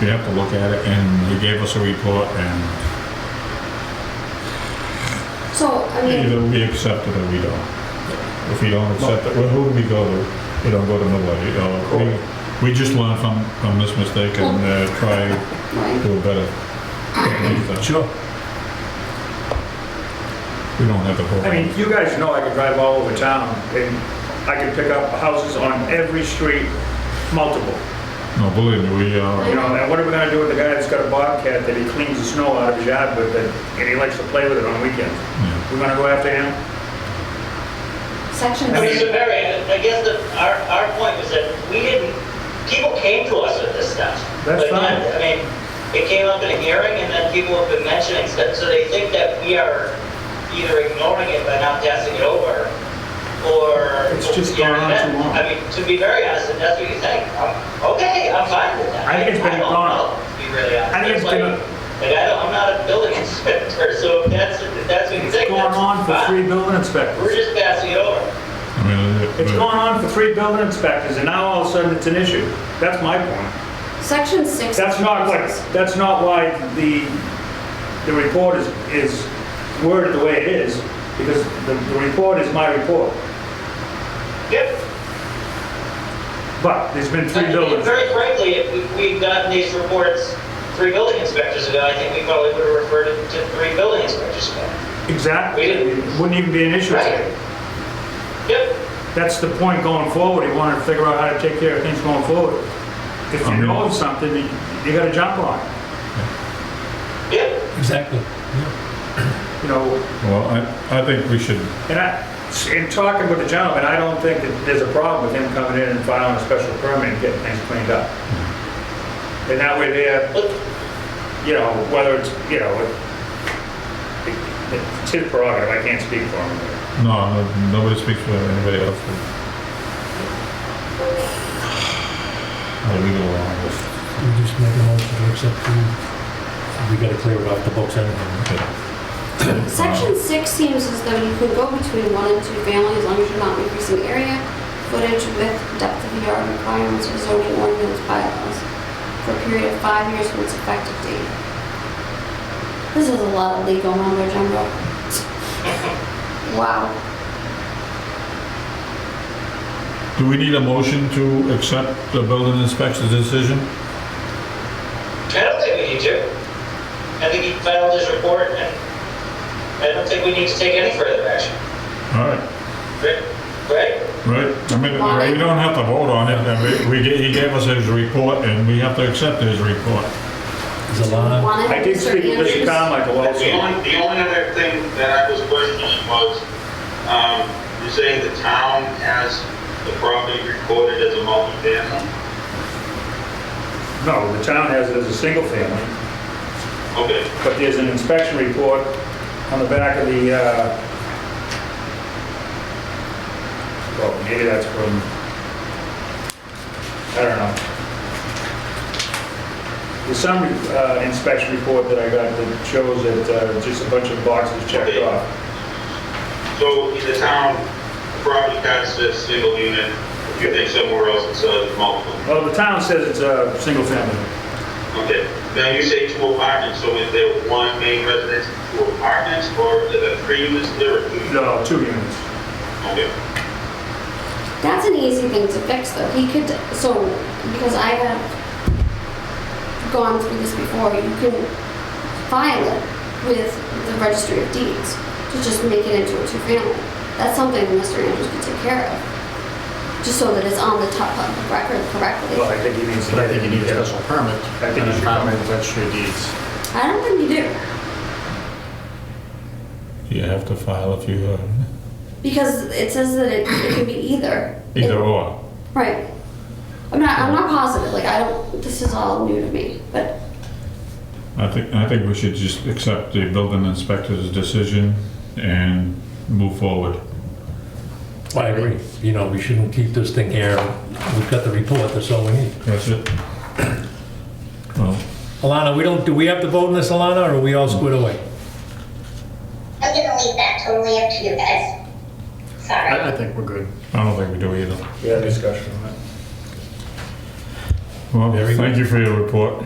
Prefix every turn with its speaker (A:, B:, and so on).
A: you have to look at it, and you gave us a report, and
B: So, I mean,
A: either we accept it or we don't. If we don't accept it, well, who do we go to? We don't go to nobody, you know. We, we just learn from, from this mistake and uh, try to
B: like,
A: do better. Sure. We don't have the whole.
C: I mean, you guys know I could drive all over town and I could pick up houses on every street, multiple.
A: No, believe me, we are.
C: You know, and what are we gonna do with the guy that's got a bobcat that he cleans the snow out of his yard with and and he likes to play with it on weekends?
A: yeah.
C: We're gonna go after him?
B: section
C: I
D: Mr.
C: mean-
B: six,
D: Barry, I guess that our, our point was that we didn't, people came to us with this stuff.
C: That's
D: But not-
C: fine.
D: I mean, it came up in a hearing and then people have been mentioning stuff, so they think that we are either ignoring it by not passing it over or.
C: It's just
D: you know,
C: gone on
D: that-
C: too long.
D: I mean, to be very honest, if that's what you think, I'm, okay, I'm fine with that.
C: I think it's been
D: don't
C: gone.
D: know, to Be really honest.
C: I think it's
D: Like-
C: been-
D: Like, I don't, I'm not a building inspector, so if that's, if that's what you
C: It's
D: think,
C: going
D: that's
C: on for three
D: fine.
C: building
D: We're
C: inspectors.
D: just passing it over.
A: I mean, it-
C: It's
A: but-
C: going on for three building inspectors and now all of a sudden it's an issue. That's my point.
B: section six.
C: That's not what, that's not why the, the report is, is worded the way it is, because the, the report is my report.
D: Yep.
C: But there's been
D: I
C: three
D: mean,
C: buildings.
D: Very frankly, if we- we'd gotten these reports three building inspectors ago, I think we probably would have referred it to three building inspectors ago.
C: Exactly. It Wouldn't even be an issue.
D: Right? Yep.
C: That's the point going forward. You want to figure out how to take care of things going forward. If you
A: Mhm.
C: know of something, you you gotta jump on it.
D: Yep.
E: Exactly.
C: You know,
A: Well, I, I think we should,
C: and I, in talking with the gentleman, I don't think that there's a problem with him coming in and filing a special permit and getting things cleaned up. And that way there,
D: But
C: you know, whether it's, you know, it- it's his prerogative, I can't speak for him.
A: no, no- nobody speaks for anybody else. I leave it alone. Just-
E: We just make a motion to accept the, we gotta clear it off the books anyway.
A: okay.
B: Section six seems as though you could go between one and two families as long as you're not increasing area, footage, width, depth of yard requirements, or zoning ordinance bylaws for a period of five years from its effective date. This is a lot of legal mumbo jumbo. Wow.
A: Do we need a motion to accept the building inspector's decision?
D: I don't think we need to. I think he filed his report and I don't think we need to take any further action.
A: All right,
D: Right? Right?
A: right, I mean, we don't have to vote on it, I mean, we, ga- he gave us his report, and we have to accept his report.
E: Is the line?
B: One
C: I did speak to Mr. Carmichael also.
F: The only, the only other thing that I was questioning was, um, you're saying the town has the property recorded as a multi-family?
C: No, the town has it as a single family.
F: Okay,
C: but there's an inspection report on the back of the, uh, well, maybe that's from, I don't know. There's some uh, inspection report that I got that shows that uh, just a bunch of boxes checked
F: Okay.
C: off.
F: so in the town, the property tax says single unit, you think somewhere else it says multiple.
C: Well, the town says it's a single family.
F: Okay, now you say two apartments, so is there one main residence, two apartments, or is there three units there? or two?
C: No, two units.
F: Okay.
B: That's an easy thing to fix, though. He could, so, because I have gone through this before, you can file it with the registry of deeds to just make it into a two-family. That's something that Mr. Andrews could take care of, just so that it's on the top public record
C: Well,
B: correctly.
C: I think he needs to.
G: But I think you need a special permit
C: I think
G: and
C: you
G: a
C: should
G: file
C: come in.
G: with registry of deeds.
B: I don't think you do,
A: You have to file if you, uh,
B: because it says that it, it can be either.
A: either or.
B: Right. I'm not, I'm not positive, like, I don't, this is all new to me, but
A: I think, I think we should just accept the building inspector's decision and move forward.
E: I agree. You know, we shouldn't keep this thing here. We've got the report, that's all we need.
A: That's it. Well,
E: Alana, we don't, do we have to vote on this, Alana, or are we all squared away?
H: I'm gonna leave that totally up to you guys. Sorry.
G: I, I think we're good.
A: I don't think we do either.
C: Yeah, discussion on it.
A: Well,
E: Very good.
A: thank you for your report.